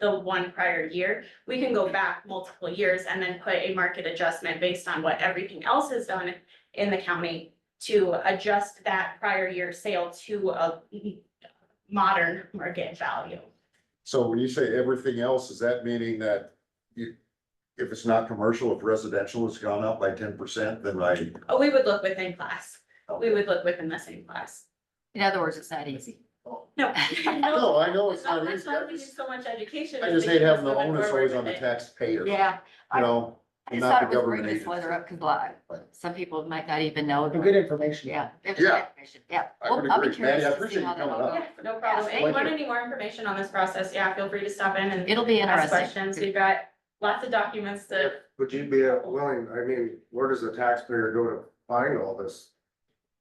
the one prior year. We can go back multiple years and then put a market adjustment based on what everything else has done in the county to adjust that prior year sale to a modern market value. So when you say everything else, is that meaning that you, if it's not commercial, if residential has gone up by ten percent, then I, Oh, we would look within class. We would look within the same class. In other words, it's not easy. No. no, I know it's not That's easy. why I we do just- so much education. I is just to hate keep us having the moving onus forward always on the with it. taxpayer, you Yeah, know? I just not thought the it was government bringing this agency. weather up, because like, some people might not even know. For good information. Yeah. it's Yeah. good information, Yeah. I Well, would I'll be agree. Maddie, I curious to appreciate see how you that coming all up. goes. Yeah, no problem. Yes, If thank you want you. any more information on this process, yeah, feel free to stop in and It'll be ask interesting. questions. We've got lots of documents to, Would you be uh, willing, I mean, where does the taxpayer go to find all this?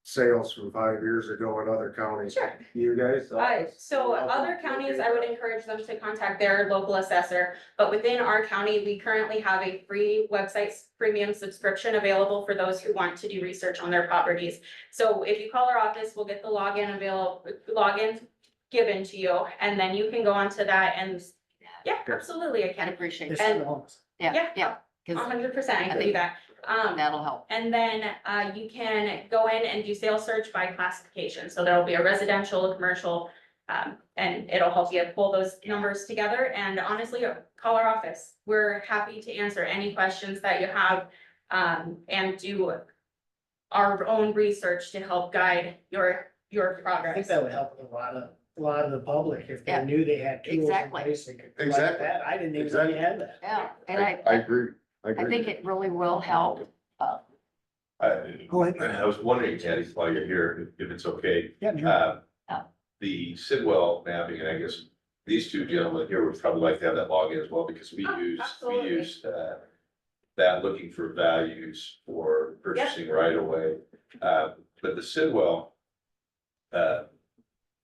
Sales from five years ago in other counties? sure. You guys? Uh, so other counties, I would encourage them to contact their local assessor, but within our county, we currently have a free website premium subscription available for those who want to do research on their properties. So if you call our office, we'll get the login available, login given to you, and then you can go onto that and, yeah, absolutely, I I'd can. appreciate It's it. the homes. Yeah, Yeah. yeah, because hundred percent, I can do think- that. Um, that'll help. and then uh you can go in and do sales search by classification, so there'll be a residential, a commercial. Um, and it'll help you pull those numbers together and honestly, uh, call our office. We're happy to answer any questions that you have. Um, and do our own research to help guide your your I think progress. that would help a lot of, a lot of the public if Yeah. they knew they had tools in Exactly. place. they could collect Exactly. that. I didn't even know you had that. Yeah, and I, I, I agree, I I agree. think it really will help. I, Go ahead. I was wondering, Patty, while you're here, if if it's okay, Yeah, sure. uh, Oh. the Sidwell mapping, and I guess these two gentlemen here would probably like to have that login as well, because we Oh, use, we absolutely. use, uh, that looking for values for purchasing right away. Uh, but the Sidwell, uh,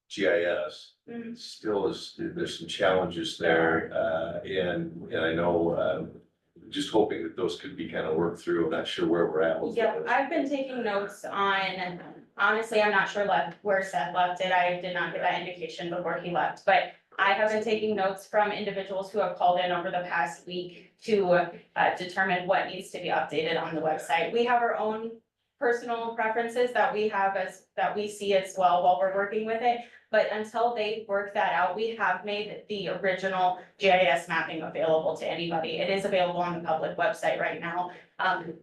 GIS, Mm, still is, there's some challenges there, uh, and, and I know, um just hoping that those could be kind of worked through, I'm not sure where we're at with Yeah, those. I've been taking notes on, honestly, I'm not sure left, where Seth left it. I did not get that indication before he left, but I have been taking notes from individuals who have called in over the past week to uh, determine what needs to be updated on the website. We have our own personal preferences that we have as, that we see as well while we're working with it. But until they work that out, we have made the original GIS mapping available to anybody. It is available on the public website right now. Um,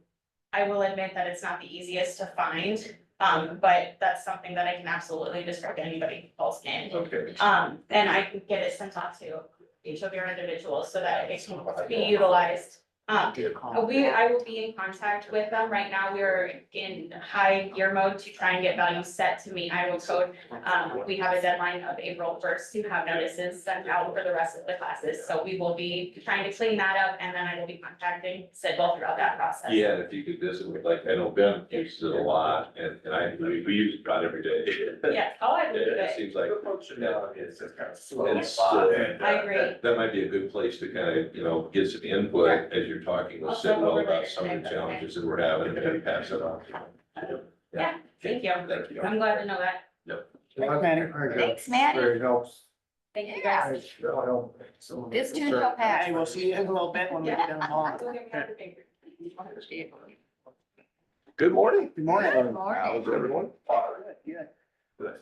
I will admit that it's not the easiest to find, um, but that's something that I can absolutely describe to anybody who calls in. Okay. Um, and I can get it sent off to each of your individuals so that it can be utilized. Um, Do Oh, uh, call. We, I will be in contact with them. Right now, we're in high gear mode to try and get values set to meet Iowa code. Um, we have a deadline of April first to have notices sent out for the rest of the classes, so we will be trying to clean that up, and then I will be contacting Sidwell throughout that process. Yeah, and if you could visit with, like, I know Ben uses it a lot, and, and I, I mean, we use it about every day. Yes, oh, I Yeah, will do It it. seems like. it's just kind of And so- I agree. That might be a good place to kind of, you know, get some input as you're talking I'll with send Sidwell over about later some of today, the but okay. challenges that we're having, and then pass it on. Yeah, thank you. Thank you. I'm glad to know that. Thanks, Maddie. Thanks, Maddie. Very helps. Thank you Yeah. guys. That'll help. So- This too shall pass. Hey, we'll see you in a little bit when we get done hauling. Go get me another paper. Good morning. Good morning. Good morning. How's everyone? Good.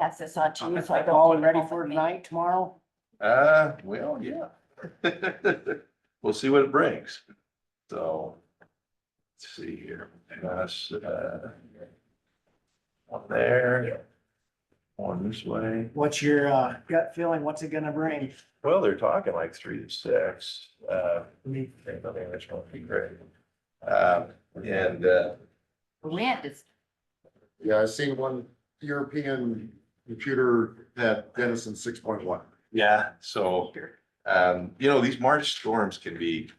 Pass this on to you. It's like all ready for tonight, tomorrow. Uh, well, yeah. We'll see what it brings. So, let's see here. That's, uh, one there, one this way. What's your uh, gut feeling? What's it gonna bring? Well, they're talking like three to six. Uh, Mm. I think that's going to be great. Uh, and, uh, Wind is, Yeah, I seen one European computer had Denison six point one. Yeah, so, um, you know, these March storms can be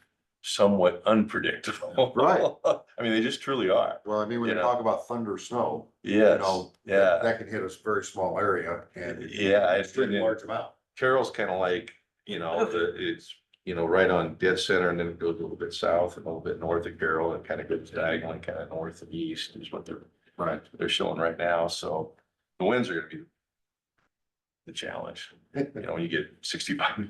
somewhat unpredictable. Right. I mean, they just truly are. Well, I mean, when you Yeah. talk about thunder snow, Yes, know, yeah, that can hit a very small area and. yeah. I It's pretty think large amount. Carroll's kind of like, you know, the, it's, you know, right on dead center and then it goes a little bit south and a little bit north of Carroll and kind of goes diagonally kind of north and east is what they're, Right. they're showing right now. So the winds are gonna be the challenge. You know, when you get sixty-five